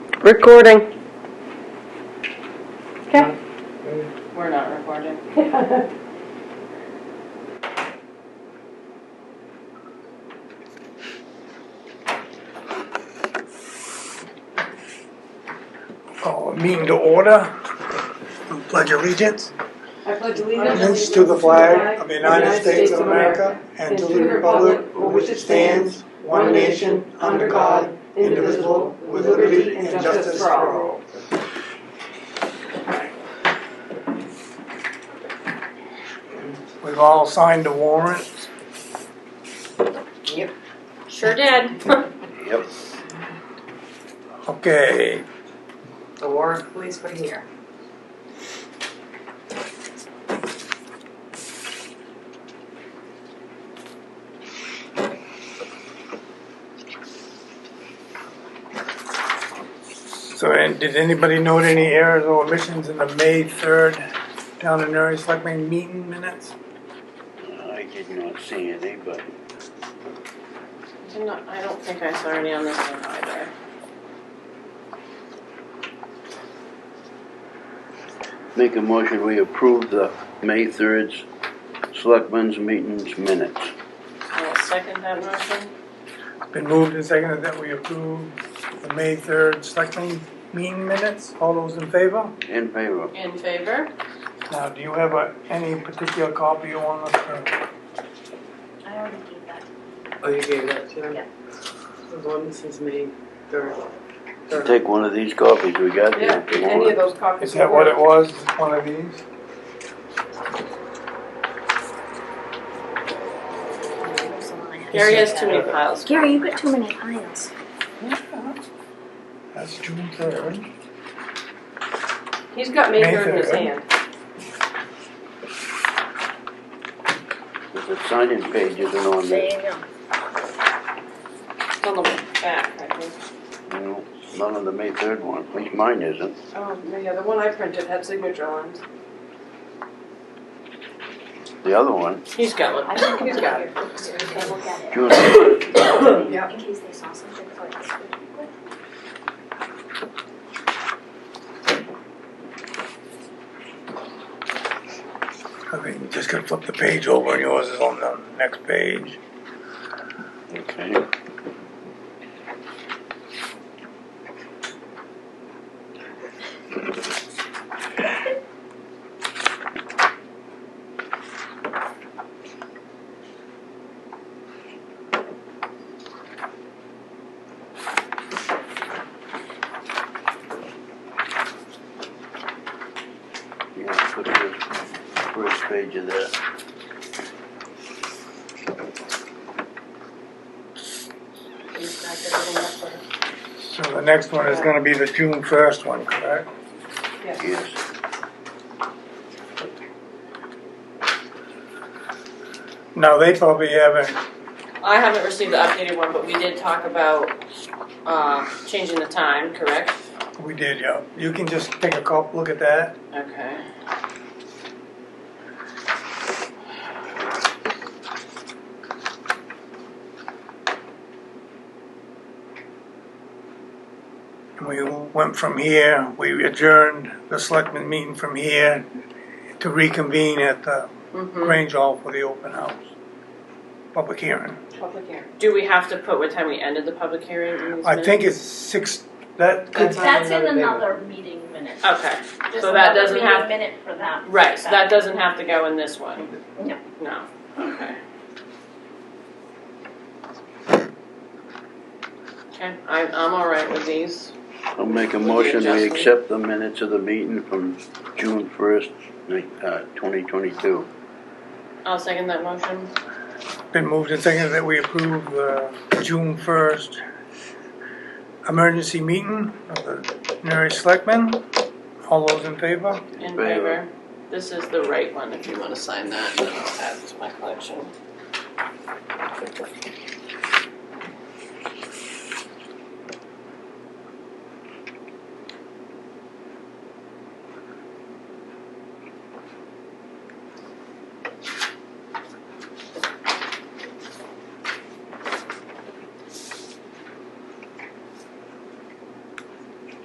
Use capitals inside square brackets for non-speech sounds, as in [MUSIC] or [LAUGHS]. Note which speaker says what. Speaker 1: Recording.
Speaker 2: Okay.
Speaker 3: We're not recording.
Speaker 4: Oh, meeting to order. Pledge allegiance.
Speaker 3: I pledge
Speaker 4: Allegiance to the flag of the United States of America and to the republic for which it stands, one nation, under God, indivisible, with liberty and justice for all. We've all signed the warrant.
Speaker 1: Sure did. [LAUGHS]
Speaker 4: Yep. Okay,
Speaker 3: The Warren Police were here.
Speaker 4: so and did anybody note any errors or omissions in the May 3rd Town and Area Selectmen meeting minutes?
Speaker 5: I did not see any, but
Speaker 3: Did not, I don't think I saw any on this one either.
Speaker 5: make a motion, we approve the May 3rd 's Selectmen's Meetings Minutes.
Speaker 3: I will second that motion.
Speaker 4: Been moved and seconded that we approve the May 3rd selectmen meeting minutes. All those in favor?
Speaker 5: In favor?
Speaker 3: In favor?
Speaker 4: Now, do you have a, any particular copy you want us to?
Speaker 6: I already gave that.
Speaker 2: Oh, you gave that to him?
Speaker 6: Yeah.
Speaker 2: The one that says May third.
Speaker 5: Take one of these copies we got there.
Speaker 3: Yeah,
Speaker 5: if you
Speaker 3: any of
Speaker 5: want.
Speaker 3: those copies.
Speaker 4: Is that what it was, one of these?
Speaker 6: There's the one I had.
Speaker 3: Gary has too many piles.
Speaker 6: Gary, you've got too many piles.
Speaker 4: That's June 3rd.
Speaker 3: He's got Mayfair in his
Speaker 4: Mayfair.
Speaker 3: hand.
Speaker 5: The sign-in page isn't on there.
Speaker 6: you go.
Speaker 3: It's on the back, I think.
Speaker 5: No, None of the May 3rd one, at least mine isn't.
Speaker 3: Oh, yeah, the one I printed had signature lines.
Speaker 5: The other one,
Speaker 3: He's got
Speaker 6: I
Speaker 3: one.
Speaker 6: think
Speaker 3: He's
Speaker 6: it's
Speaker 3: got
Speaker 6: got
Speaker 3: it.
Speaker 6: so they can look at
Speaker 5: June,
Speaker 3: Yeah.
Speaker 6: it in case they saw something for this week.
Speaker 4: I think you just gotta flip the page over and yours is on the next page.
Speaker 5: okay. Yeah, put the first page of that.
Speaker 3: He's got everything up there.
Speaker 4: So the next one is gonna be the June 1st one, correct?
Speaker 3: Yes.
Speaker 5: Yes,
Speaker 4: Now, they probably haven't,
Speaker 3: I haven't received the updated one, but we did talk about, uh, changing the time, correct?
Speaker 4: we did, yeah. You can just take a cop, look at that.
Speaker 3: Okay.
Speaker 4: We went from here, we adjourned the selectmen meeting from here to reconvene at the
Speaker 3: Mm-hmm.
Speaker 4: Grange Hall for the open house, public hearing.
Speaker 3: Public hearing. Do we have to put what time we ended the public hearing in these
Speaker 4: I think
Speaker 3: minutes?
Speaker 4: it's six, that could,
Speaker 2: That's on
Speaker 7: That's in
Speaker 2: another day.
Speaker 7: another meeting minute.
Speaker 3: Okay,
Speaker 7: There's
Speaker 3: so that
Speaker 7: another
Speaker 3: doesn't
Speaker 7: meeting
Speaker 3: have-
Speaker 7: Minute for that.
Speaker 3: right, so that doesn't have to go in this one?
Speaker 7: No.
Speaker 3: No, okay. Okay, I'm, I'm all right with these.
Speaker 5: I'll make a
Speaker 3: With the
Speaker 5: motion, we
Speaker 3: adjustment.
Speaker 5: accept the minutes of the meeting from June first, uh, twenty twenty-two.
Speaker 3: I'll second that motion.
Speaker 4: been moved and seconded that we approve the June first emergency meeting of the Newry Selectmen. All those in favor?
Speaker 3: In
Speaker 5: Favor.
Speaker 3: favor. This is the right one, if you wanna sign that, and then I'll add it to my collection.